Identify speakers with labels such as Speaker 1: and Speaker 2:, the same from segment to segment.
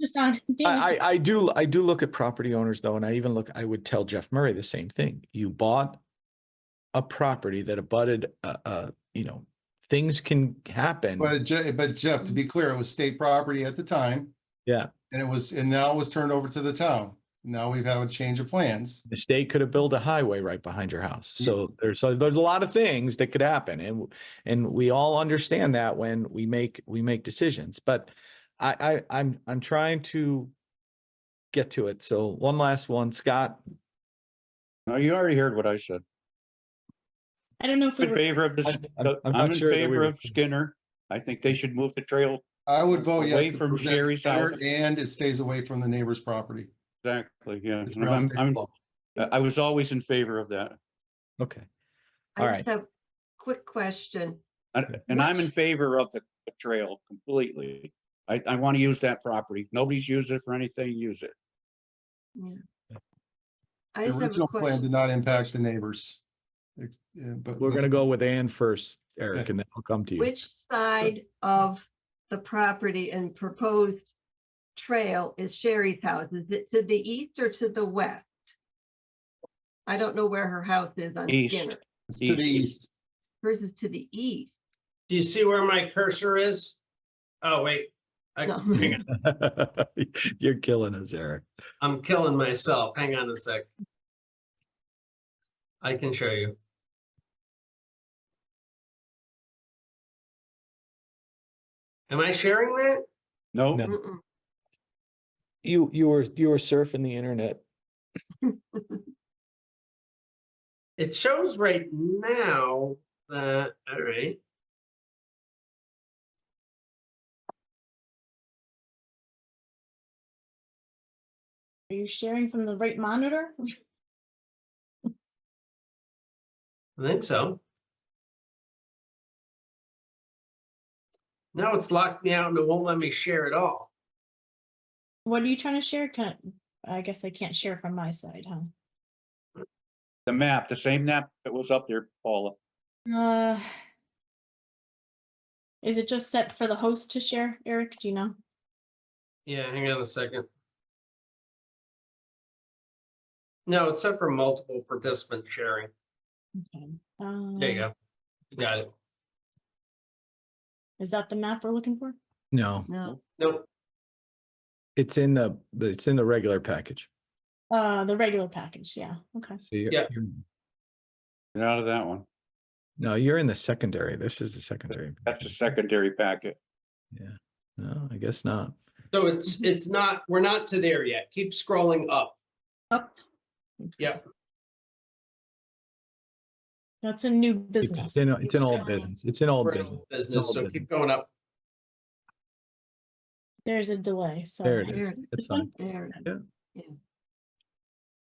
Speaker 1: just on. being-
Speaker 2: I, I, I do, I do look at property owners though, and I even look, I would tell Jeff Murray the same thing. You bought a property that abutted, uh, uh, you know, things can happen.
Speaker 3: But Je- but Jeff, to be clear, it was state property at the time.
Speaker 2: Yeah.
Speaker 3: And it was, and now it was turned over to the town. Now we have a change of plans.
Speaker 2: The state could have built a highway right behind your house.
Speaker 3: Yeah.
Speaker 2: So there's, a- there's a lot of things that could happen and, and we all understand that when we make, we make decisions. But I, I, I'm, I'm trying to get to it. So one last one, Scott,
Speaker 4: No, you already heard what I said.
Speaker 1: I don't know if we
Speaker 4: In
Speaker 1: were,
Speaker 4: favor of this,
Speaker 2: I'm- I'm- I'm
Speaker 4: I'm
Speaker 2: not
Speaker 4: in
Speaker 2: sure that we
Speaker 4: favor
Speaker 2: were-
Speaker 4: of Skinner. I think they should move the trail
Speaker 3: I would vote
Speaker 4: Away
Speaker 3: yes. to
Speaker 4: from
Speaker 3: protest
Speaker 4: Sherry's
Speaker 3: Skinner,
Speaker 4: house.
Speaker 3: And it stays away from the neighbor's property.
Speaker 4: exactly, yeah.
Speaker 3: It's
Speaker 4: And
Speaker 3: around
Speaker 4: I'm,
Speaker 3: state
Speaker 4: I'm,
Speaker 3: law.
Speaker 4: I was always in favor of that.
Speaker 2: okay.
Speaker 5: I
Speaker 2: All
Speaker 5: just have quick question.
Speaker 4: And- And I'm in
Speaker 5: Which-
Speaker 4: favor of the trail completely. I, I want to use that property. Nobody's used it for anything, use it.
Speaker 5: I
Speaker 3: The
Speaker 5: just have
Speaker 3: original
Speaker 5: a
Speaker 3: plan did
Speaker 5: question.
Speaker 3: not impact the neighbors. It's- yeah, But.
Speaker 2: We're gonna go with Ann first, Eric, and then I'll come to you.
Speaker 5: Which side of the property and proposed trail is Sherry's house? Is it to the east or to the west? I don't know where her house is on
Speaker 4: East.
Speaker 5: Skinner.
Speaker 3: It's to the east.
Speaker 5: Hers is to the east.
Speaker 6: Do you see where my cursor is? Oh, wait. I-
Speaker 5: No.
Speaker 6: hang on.
Speaker 2: You're killing us, Eric.
Speaker 6: I'm killing myself. Hang on a sec. I can show you. Am I sharing that?
Speaker 4: No,
Speaker 2: No.
Speaker 5: Mm-mm.
Speaker 2: You, you were, you were surfing the internet.
Speaker 6: It shows right now that, all right.
Speaker 1: are you sharing from the right monitor?
Speaker 6: I think so. Now it's locked me out and it won't let me share at all.
Speaker 1: What are you trying to share? Can, I guess I can't share from my side, huh?
Speaker 4: the map, the same map that was up there, Paula.
Speaker 1: Uh, Is it just set for the host to share, Eric? Do you know?
Speaker 6: Yeah, hang on a second. No, it's set for multiple participant sharing.
Speaker 1: Okay.
Speaker 6: There you
Speaker 1: um,
Speaker 6: go. You
Speaker 3: Hmm.
Speaker 6: Got it.
Speaker 1: Is that the map we're looking for?
Speaker 2: No,
Speaker 5: No,
Speaker 6: Nope.
Speaker 2: it's in the, it's in the regular package.
Speaker 1: Uh, the regular package, yeah, okay.
Speaker 2: So you're,
Speaker 6: Yeah.
Speaker 2: you're-
Speaker 4: Get out of that one.
Speaker 2: no, you're in the secondary. This is the secondary.
Speaker 4: That's a secondary packet.
Speaker 2: Yeah, no, I guess not.
Speaker 6: So
Speaker 3: Mm-hmm.
Speaker 6: it's, it's not, we're not to there yet. Keep scrolling up.
Speaker 1: Up.
Speaker 6: Yep.
Speaker 1: That's a new
Speaker 2: It's
Speaker 1: business.
Speaker 2: in, it's in old
Speaker 5: Definitely.
Speaker 2: business. It's in old
Speaker 6: We're in
Speaker 2: business.
Speaker 6: Business, so
Speaker 2: business.
Speaker 6: keep going up.
Speaker 1: There's a delay, so.
Speaker 2: There it
Speaker 1: I-
Speaker 5: There
Speaker 2: is.
Speaker 5: it is.
Speaker 1: This
Speaker 2: That's
Speaker 1: one?
Speaker 2: fine.
Speaker 5: there.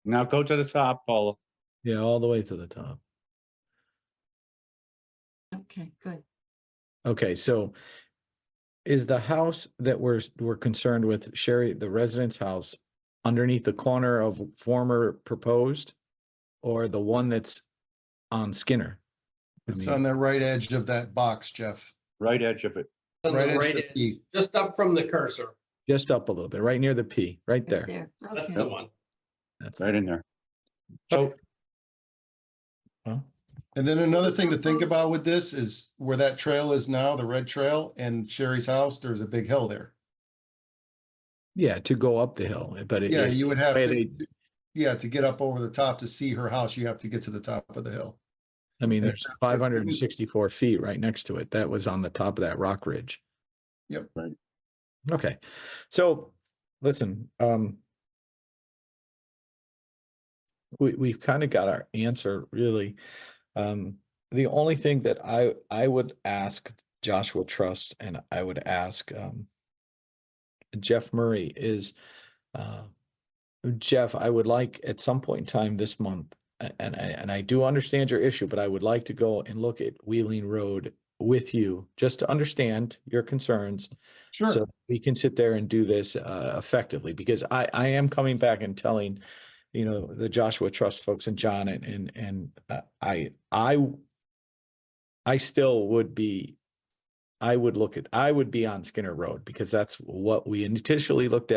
Speaker 4: Now go to the top, Paula.
Speaker 2: Yeah, all the way to the top.
Speaker 5: Okay, good.
Speaker 2: Okay, so is the house that we're, we're concerned with, Sherry, the residence house underneath the corner of former proposed? Or the one that's on Skinner? I
Speaker 3: It's
Speaker 2: mean-
Speaker 3: on the right edge of that box, Jeff.
Speaker 4: Right edge of it.
Speaker 6: On
Speaker 3: Right
Speaker 6: the
Speaker 3: edge
Speaker 6: right,
Speaker 3: of the
Speaker 6: end,
Speaker 3: P.
Speaker 6: just up from the cursor.
Speaker 2: Just up a little bit, right near the P, right
Speaker 5: Right
Speaker 2: there.
Speaker 5: there.
Speaker 6: That's
Speaker 5: Okay.
Speaker 6: the one.
Speaker 2: That's,
Speaker 4: Right in there. So
Speaker 2: well,
Speaker 3: And then another thing to think about with this is where that trail is now, the red trail and Sherry's house, there's a big hill there.
Speaker 2: yeah, to go up the hill, but it-
Speaker 3: Yeah,
Speaker 2: it-
Speaker 3: you would have
Speaker 2: way
Speaker 3: to,
Speaker 2: they-
Speaker 3: yeah, to get up over the top to see her house, you have to get to the top of the hill.
Speaker 2: I mean,
Speaker 3: Yeah.
Speaker 2: there's five hundred and sixty-four feet right next to it. That was on the top of that rock ridge.
Speaker 3: Yep.
Speaker 4: Right.
Speaker 2: Okay, so, listen, um. We, we've kind of got our answer really. Um, the only thing that I, I would ask Joshua Trust and I would ask, um. Jeff Murray is, uh, Jeff, I would like at some point in time this month, a- and I, and I do understand your issue, but I would like to go and look at Wheeling Road with you, just to understand your concerns. So we can sit there and do this uh, effectively, because I, I am coming back and telling, you know, the Joshua Trust folks and John and, and, and uh, I, I, I still would be, I would look at, I would be on Skinner Road, because that's what we initially looked at.